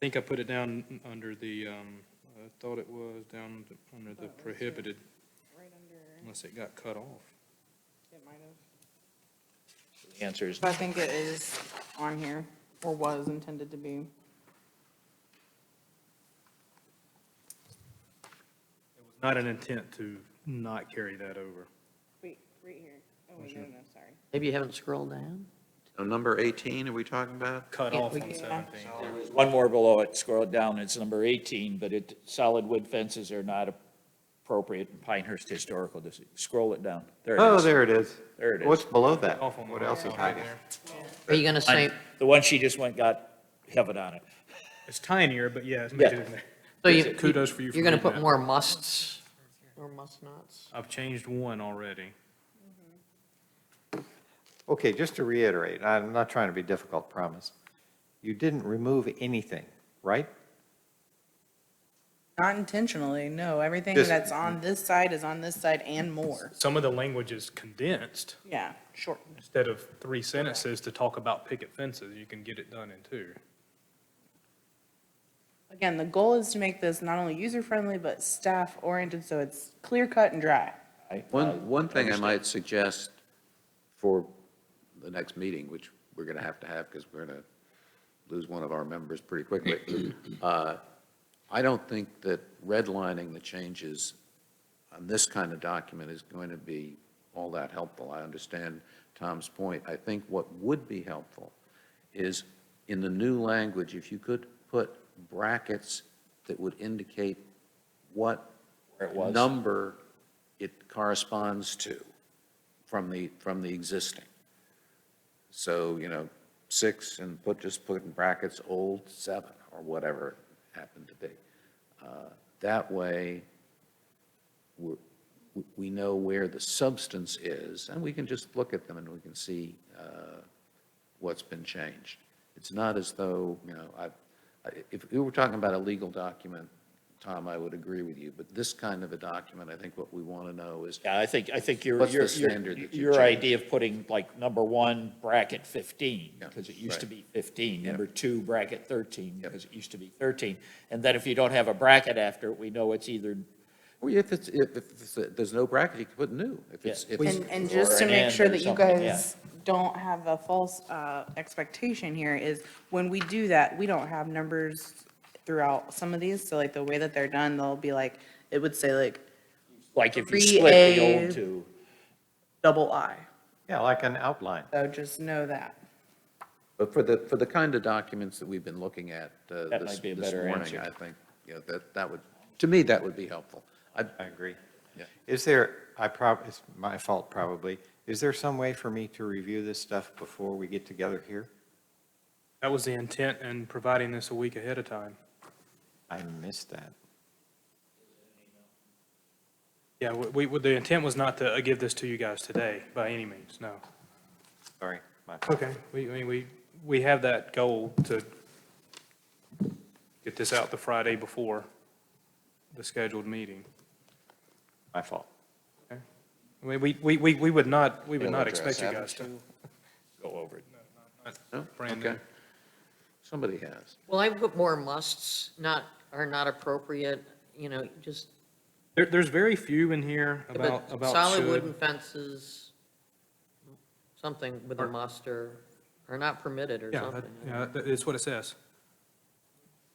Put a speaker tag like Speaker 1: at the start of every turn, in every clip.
Speaker 1: think I put it down under the, um, I thought it was down under the prohibited,
Speaker 2: right under,
Speaker 1: unless it got cut off.
Speaker 2: it might have.
Speaker 3: The Answer is,
Speaker 2: But I think it is on here, or was intended to be.
Speaker 1: Not an intent to not carry that over.
Speaker 2: Wait, right here. Oh, wait, no, no, sorry.
Speaker 4: Maybe you haven't scrolled down?
Speaker 5: So number 18, are we talking about?
Speaker 1: Cut
Speaker 4: Yeah,
Speaker 1: off
Speaker 4: we
Speaker 1: on
Speaker 4: can-
Speaker 1: seventeen.
Speaker 3: there's one more below it, scroll down, it's number 18, but it, solid wood fences are not appropriate in Pinehurst Historical District. Scroll it down. There it
Speaker 5: Oh,
Speaker 3: is.
Speaker 5: there it is.
Speaker 3: There it is.
Speaker 5: What's below that?
Speaker 1: Off on the-
Speaker 5: What else is
Speaker 1: on right
Speaker 5: hiding?
Speaker 1: there.
Speaker 4: Are you gonna say,
Speaker 3: The one she just went got heaven on it.
Speaker 1: It's tinier, but yeah, it's major in there.
Speaker 4: so you.
Speaker 1: Kudos for you for
Speaker 4: You're gonna
Speaker 1: reading
Speaker 4: put
Speaker 1: that.
Speaker 4: more musts? Or must nots?
Speaker 1: I've changed one already.
Speaker 5: Okay, just to reiterate, I'm not trying to be difficult, promise. You didn't remove anything, right?
Speaker 2: Not intentionally, no. Everything
Speaker 5: Just-
Speaker 2: that's on this side is on this side and more.
Speaker 1: Some of the language is condensed.
Speaker 2: Yeah, shortened.
Speaker 1: Instead of three sentences to talk about picket fences, you can get it done in two.
Speaker 2: Again, the goal is to make this not only user-friendly, but staff-oriented, so it's clear cut and dry.
Speaker 3: I- I
Speaker 6: One, one thing I
Speaker 3: understand.
Speaker 6: might suggest for the next meeting, which we're going to have to have because we're going to lose one of our members pretty quickly. uh, I don't think that redlining the changes on this kind of document is going to be all that helpful. I understand Tom's point. I think what would be helpful is in the new language, if you could put brackets that would indicate what
Speaker 3: Where it was.
Speaker 6: number it corresponds to from the, from the existing. So, you know, six and put, just put in brackets, old seven or whatever it happened to be. Uh, That way, we're, we- we know where the substance is and we can just look at them and we can see uh, what's been changed. It's not as though, you know, I, I- if we were talking about a legal document, Tom, I would agree with you, but this kind of a document, I think what we want to know is,
Speaker 3: Yeah, I think, I think your,
Speaker 6: What's the
Speaker 3: your, your,
Speaker 6: standard that you
Speaker 3: your
Speaker 6: choose?
Speaker 3: idea of putting like number one bracket 15,
Speaker 6: Yeah,
Speaker 3: because it used to
Speaker 6: right.
Speaker 3: be 15,
Speaker 6: Yep.
Speaker 3: number two bracket 13,
Speaker 6: Yep.
Speaker 3: because it used to be 13. And then if you don't have a bracket after it, we know it's either,
Speaker 6: well, if it's, if, if it's- there's no bracket, you can put new. If it's,
Speaker 3: Yeah.
Speaker 6: if it's,
Speaker 2: And, and just
Speaker 3: or
Speaker 2: to
Speaker 3: an
Speaker 2: make
Speaker 3: and
Speaker 2: sure
Speaker 3: or
Speaker 2: that you
Speaker 3: something, yeah.
Speaker 2: guys don't have a false uh, expectation here is when we do that, we don't have numbers throughout some of these. So like the way that they're done, they'll be like, it would say like
Speaker 3: like if you
Speaker 2: Three
Speaker 3: split the
Speaker 2: A.
Speaker 3: old two.
Speaker 2: double I.
Speaker 5: Yeah, like an outline.
Speaker 2: So just know that.
Speaker 6: but for the, for the kind of documents that we've been looking at uh,
Speaker 3: That
Speaker 6: this,
Speaker 3: might be a
Speaker 6: this
Speaker 3: better
Speaker 6: morning,
Speaker 3: answer.
Speaker 6: I think, you know, that, that would, to me, that would be helpful. I,
Speaker 5: I agree.
Speaker 6: Yeah.
Speaker 5: Is there, I prob, it's my fault probably, is there some way for me to review this stuff before we get together here?
Speaker 1: That was the intent in providing this a week ahead of time.
Speaker 5: I missed that.
Speaker 1: Yeah, we, we, the intent was not to uh, give this to you guys today by any means, no.
Speaker 5: Sorry. my-
Speaker 1: Okay. We, I mean, we, we have that goal to get this out the Friday before the scheduled meeting.
Speaker 5: My fault.
Speaker 1: I mean, we, we, we, we would not, we would
Speaker 6: It'll
Speaker 1: not
Speaker 6: address
Speaker 1: expect you
Speaker 6: that
Speaker 1: guys to. Uh,
Speaker 3: Go over it.
Speaker 5: Oh,
Speaker 6: no?
Speaker 1: Brand
Speaker 6: Okay.
Speaker 1: new.
Speaker 6: Somebody has.
Speaker 4: Well, I put more musts, not, are not appropriate, you know, just.
Speaker 1: There, there's very few in here
Speaker 4: but
Speaker 1: about, about
Speaker 4: Solid wooden
Speaker 1: should.
Speaker 4: fences, something with a
Speaker 1: Are-
Speaker 4: must or, are not permitted or
Speaker 1: Yeah, that,
Speaker 4: something.
Speaker 1: yeah, that- it's what it says.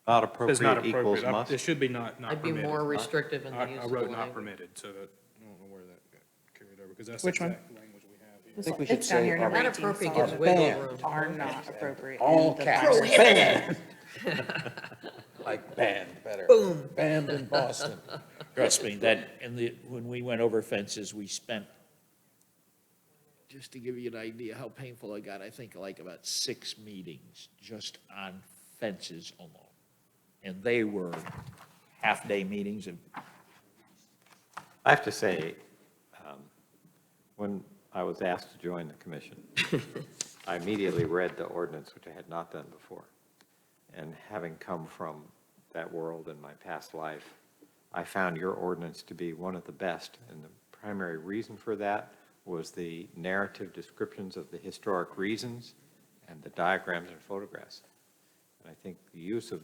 Speaker 5: Not
Speaker 1: It's not
Speaker 5: appropriate equals
Speaker 1: appropriate. I-
Speaker 5: must.
Speaker 1: It should be not, not
Speaker 4: I'd be more
Speaker 1: permitted.
Speaker 4: restrictive in the
Speaker 1: I,
Speaker 4: use
Speaker 1: I
Speaker 4: of the
Speaker 1: wrote not
Speaker 4: language.
Speaker 1: permitted, so that, I don't know where that got carried over, because that's the
Speaker 2: Which one?
Speaker 1: exact language we have here.
Speaker 2: It's
Speaker 6: think we should
Speaker 2: down
Speaker 6: say
Speaker 2: here,
Speaker 6: are
Speaker 2: number
Speaker 4: Not
Speaker 2: 18,
Speaker 4: appropriate
Speaker 2: solid
Speaker 4: gives wiggle
Speaker 2: waste
Speaker 4: room.
Speaker 2: Are not appropriate.
Speaker 6: All
Speaker 2: in the
Speaker 6: caps.
Speaker 2: Bible.
Speaker 3: Banned.
Speaker 6: Like banned, better.
Speaker 4: Boom.
Speaker 6: Banned in Boston.
Speaker 3: Trust me, that, and the, when we went over fences, we spent, just to give you an idea how painful I got, I think like about six meetings just on fences alone. And they were half-day meetings of
Speaker 5: I have to say, um, when I was asked to join the commission, I immediately read the ordinance, which I had not done before. And having come from that world in my past life, I found your ordinance to be one of the best. And the primary reason for that was the narrative descriptions of the historic reasons and the diagrams and photographs. And I think the use of